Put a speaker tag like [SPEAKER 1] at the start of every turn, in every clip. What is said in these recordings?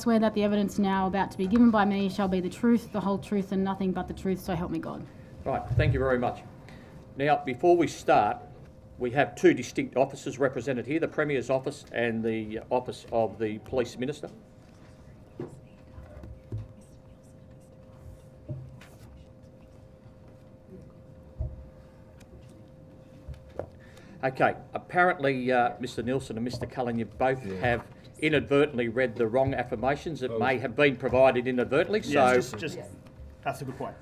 [SPEAKER 1] swear that the evidence now about to be given by me shall be the truth, the whole truth, and nothing but the truth, so help me God.
[SPEAKER 2] Right, thank you very much. Now, before we start, we have two distinct offices represented here, the Premier's office and the office of the Police Minister. Okay, apparently, uh, Mr Nielsen and Mr Cullen, you both have inadvertently read the wrong affirmations that may have been provided inadvertently,
[SPEAKER 3] Yes,
[SPEAKER 2] so
[SPEAKER 3] just, just, that's a good point.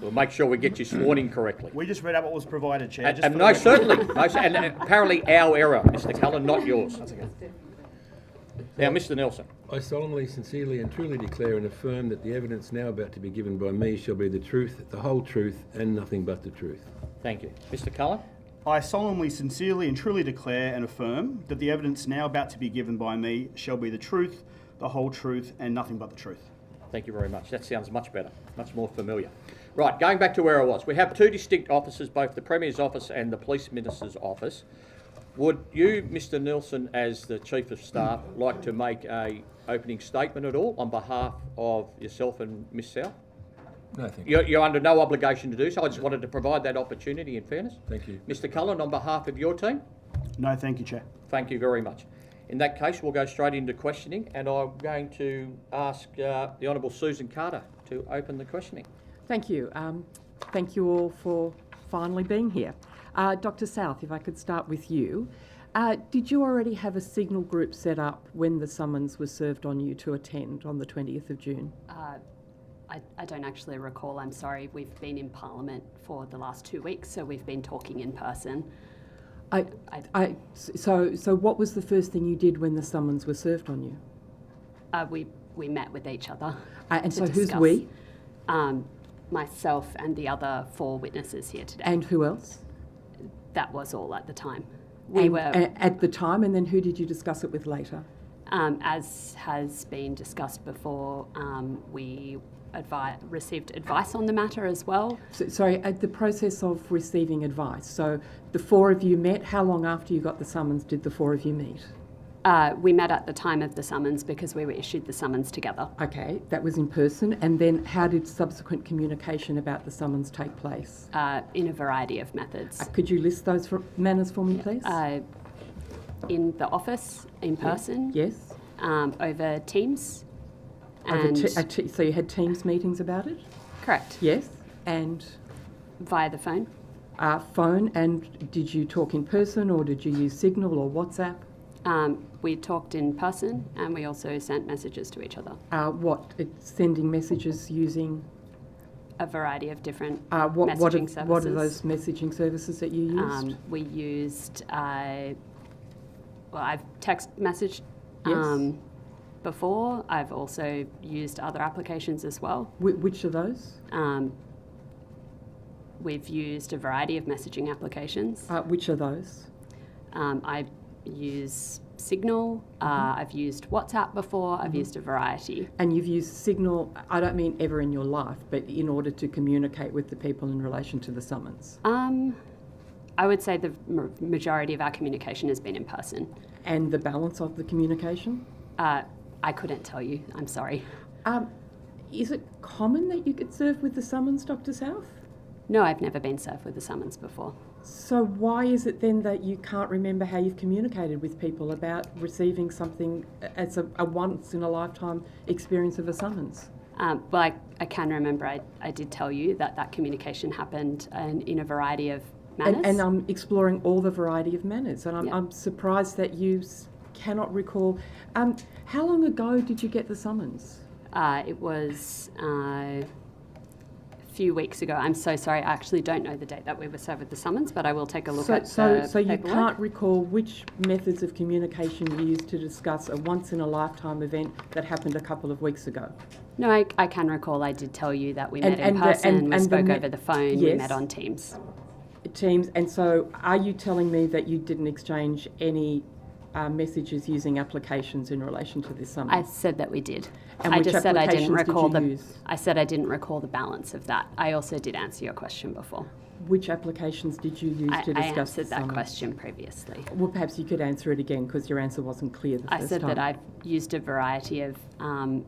[SPEAKER 2] we'll make sure we get you sworn in correctly.
[SPEAKER 3] We just read out what was provided, Chair.
[SPEAKER 2] And,
[SPEAKER 3] just
[SPEAKER 2] and
[SPEAKER 3] for
[SPEAKER 2] no,
[SPEAKER 3] the record.
[SPEAKER 2] certainly. No, cer- and uh, apparently our error, Mr. Cullen, not yours.
[SPEAKER 3] That's okay.
[SPEAKER 2] Now, Mr. Nelson,
[SPEAKER 4] I solemnly, sincerely, and truly declare and affirm that the evidence now about to be given by me shall be the truth, the whole truth, and nothing but the truth.
[SPEAKER 2] thank you. Mr. Cullen,
[SPEAKER 3] I solemnly, sincerely, and truly declare and affirm that the evidence now about to be given by me shall be the truth, the whole truth, and nothing but the truth.
[SPEAKER 2] thank you very much. That sounds much better, much more familiar. Right, going back to where I was, we have two distinct offices, both the Premier's office and the Police Minister's office. Would you, Mr. Nelson, as the Chief of Staff, like to make a opening statement at all on behalf of yourself and Miss South?
[SPEAKER 4] No, thank you.
[SPEAKER 2] You're, you're under no obligation to do so. I just wanted to provide that opportunity in fairness.
[SPEAKER 4] Thank you.
[SPEAKER 2] Mr. Cullen, on behalf of your team?
[SPEAKER 3] No, thank you, Chair.
[SPEAKER 2] Thank you very much. In that case, we'll go straight into questioning, and I'm going to ask uh, the Honourable Susan Carter to open the questioning.
[SPEAKER 5] Thank you. Um, thank you all for finally being here. Uh, Dr. South, if I could start with you. Uh, did you already have a signal group set up when the summons was served on you to attend on the 20th of June?
[SPEAKER 6] I, I don't actually recall, I'm sorry. We've been in Parliament for the last two weeks, so we've been talking in person.
[SPEAKER 5] I,
[SPEAKER 6] I-
[SPEAKER 5] I, so, so what was the first thing you did when the summons were served on you?
[SPEAKER 6] Uh, we, we met with each other.
[SPEAKER 5] Uh, and
[SPEAKER 6] to
[SPEAKER 5] so who's
[SPEAKER 6] discuss,
[SPEAKER 5] we?
[SPEAKER 6] Um, myself and the other four witnesses here today.
[SPEAKER 5] And who else?
[SPEAKER 6] that was all at the time. We
[SPEAKER 5] And-
[SPEAKER 6] were,
[SPEAKER 5] a- at the time, and then who did you discuss it with later?
[SPEAKER 6] um, as has been discussed before, um, we advi- received advice on the matter as well.
[SPEAKER 5] So, sorry, at the process of receiving advice. So the four of you met. How long after you got the summons did the four of you meet?
[SPEAKER 6] Uh, we met at the time of the summons because we were issued the summons together.
[SPEAKER 5] Okay, that was in person. And then how did subsequent communication about the summons take place?
[SPEAKER 6] uh, in a variety of methods.
[SPEAKER 5] Uh, Could you list those for, manners for me, please?
[SPEAKER 6] Uh, in the office, in person,
[SPEAKER 5] yes.
[SPEAKER 6] um, over Teams,
[SPEAKER 5] Over
[SPEAKER 6] and
[SPEAKER 5] te- uh, a te- so you had Teams meetings about it?
[SPEAKER 6] correct
[SPEAKER 5] Yes. And
[SPEAKER 6] via the phone.
[SPEAKER 5] uh, phone. And did you talk in person or did you use Signal or WhatsApp?
[SPEAKER 6] Um, we talked in person, and we also sent messages to each other.
[SPEAKER 5] Uh, what? uh, Sending messages using.
[SPEAKER 6] A variety of different
[SPEAKER 5] Uh, what,
[SPEAKER 6] messaging
[SPEAKER 5] what, are,
[SPEAKER 6] services.
[SPEAKER 5] what are those messaging services that you used?
[SPEAKER 6] Um, we used, uh, well, I've text messaged
[SPEAKER 5] Yes.
[SPEAKER 6] um, before. I've also used other applications as well.
[SPEAKER 5] Whi which are those?
[SPEAKER 6] Um, we've used a variety of messaging applications.
[SPEAKER 5] Uh, which are those?
[SPEAKER 6] Um, I use Signal, uh, I've used WhatsApp before,
[SPEAKER 5] Mm-hmm.
[SPEAKER 6] I've used a variety.
[SPEAKER 5] And you've used Signal, I don't mean ever in your life, but in order to communicate with the people in relation to the summons.
[SPEAKER 6] Um, I would say the ma- majority of our communication has been in person.
[SPEAKER 5] And the balance of the communication?
[SPEAKER 6] Uh, I couldn't tell you, I'm sorry.
[SPEAKER 5] Um, is it common that you get served with the summons, Dr. South?
[SPEAKER 6] No, I've never been served with a summons before.
[SPEAKER 5] So, why is it then that you can't remember how you've communicated with people about receiving something as a, a once in a lifetime experience of a summons?
[SPEAKER 6] Um, well, I, I can remember I, I did tell you that that communication happened in, in a variety of manners.
[SPEAKER 5] And, and I'm exploring all the variety of manners, and I'm,
[SPEAKER 6] Yeah.
[SPEAKER 5] I'm surprised that you s- cannot recall. Um, how long ago did you get the summons?
[SPEAKER 6] Uh, it was uh, a few weeks ago. I'm so sorry. I actually don't know the date that we were served with the summons, but I will take a look
[SPEAKER 5] So,
[SPEAKER 6] at
[SPEAKER 5] so,
[SPEAKER 6] the
[SPEAKER 5] so you
[SPEAKER 6] paperwork.
[SPEAKER 5] can't recall which methods of communication you used to discuss a once in a lifetime event that happened a couple of weeks ago?
[SPEAKER 6] No, I, I can recall. I did tell you that we
[SPEAKER 5] And-
[SPEAKER 6] met in
[SPEAKER 5] and the-
[SPEAKER 6] person.
[SPEAKER 5] and-
[SPEAKER 6] we
[SPEAKER 5] and the
[SPEAKER 6] spoke
[SPEAKER 5] me-
[SPEAKER 6] over the phone. We
[SPEAKER 5] Yes.
[SPEAKER 6] met on Teams.
[SPEAKER 5] Teams, and so are you telling me that you didn't exchange any uh, messages using applications in relation to this
[SPEAKER 6] I
[SPEAKER 5] summons?
[SPEAKER 6] said that we did.
[SPEAKER 5] And
[SPEAKER 6] I
[SPEAKER 5] which
[SPEAKER 6] just said I
[SPEAKER 5] applications
[SPEAKER 6] didn't
[SPEAKER 5] did
[SPEAKER 6] recall
[SPEAKER 5] you
[SPEAKER 6] the.
[SPEAKER 5] use?
[SPEAKER 6] I said I didn't recall the balance of that. I also did answer your question before.
[SPEAKER 5] Which applications did you use
[SPEAKER 6] I,
[SPEAKER 5] to
[SPEAKER 6] I
[SPEAKER 5] discuss
[SPEAKER 6] answered
[SPEAKER 5] the
[SPEAKER 6] that
[SPEAKER 5] summons?
[SPEAKER 6] question previously.
[SPEAKER 5] Well, perhaps you could answer it again because your answer wasn't clear the
[SPEAKER 6] I
[SPEAKER 5] first
[SPEAKER 6] said
[SPEAKER 5] time.
[SPEAKER 6] that I've used a variety of um,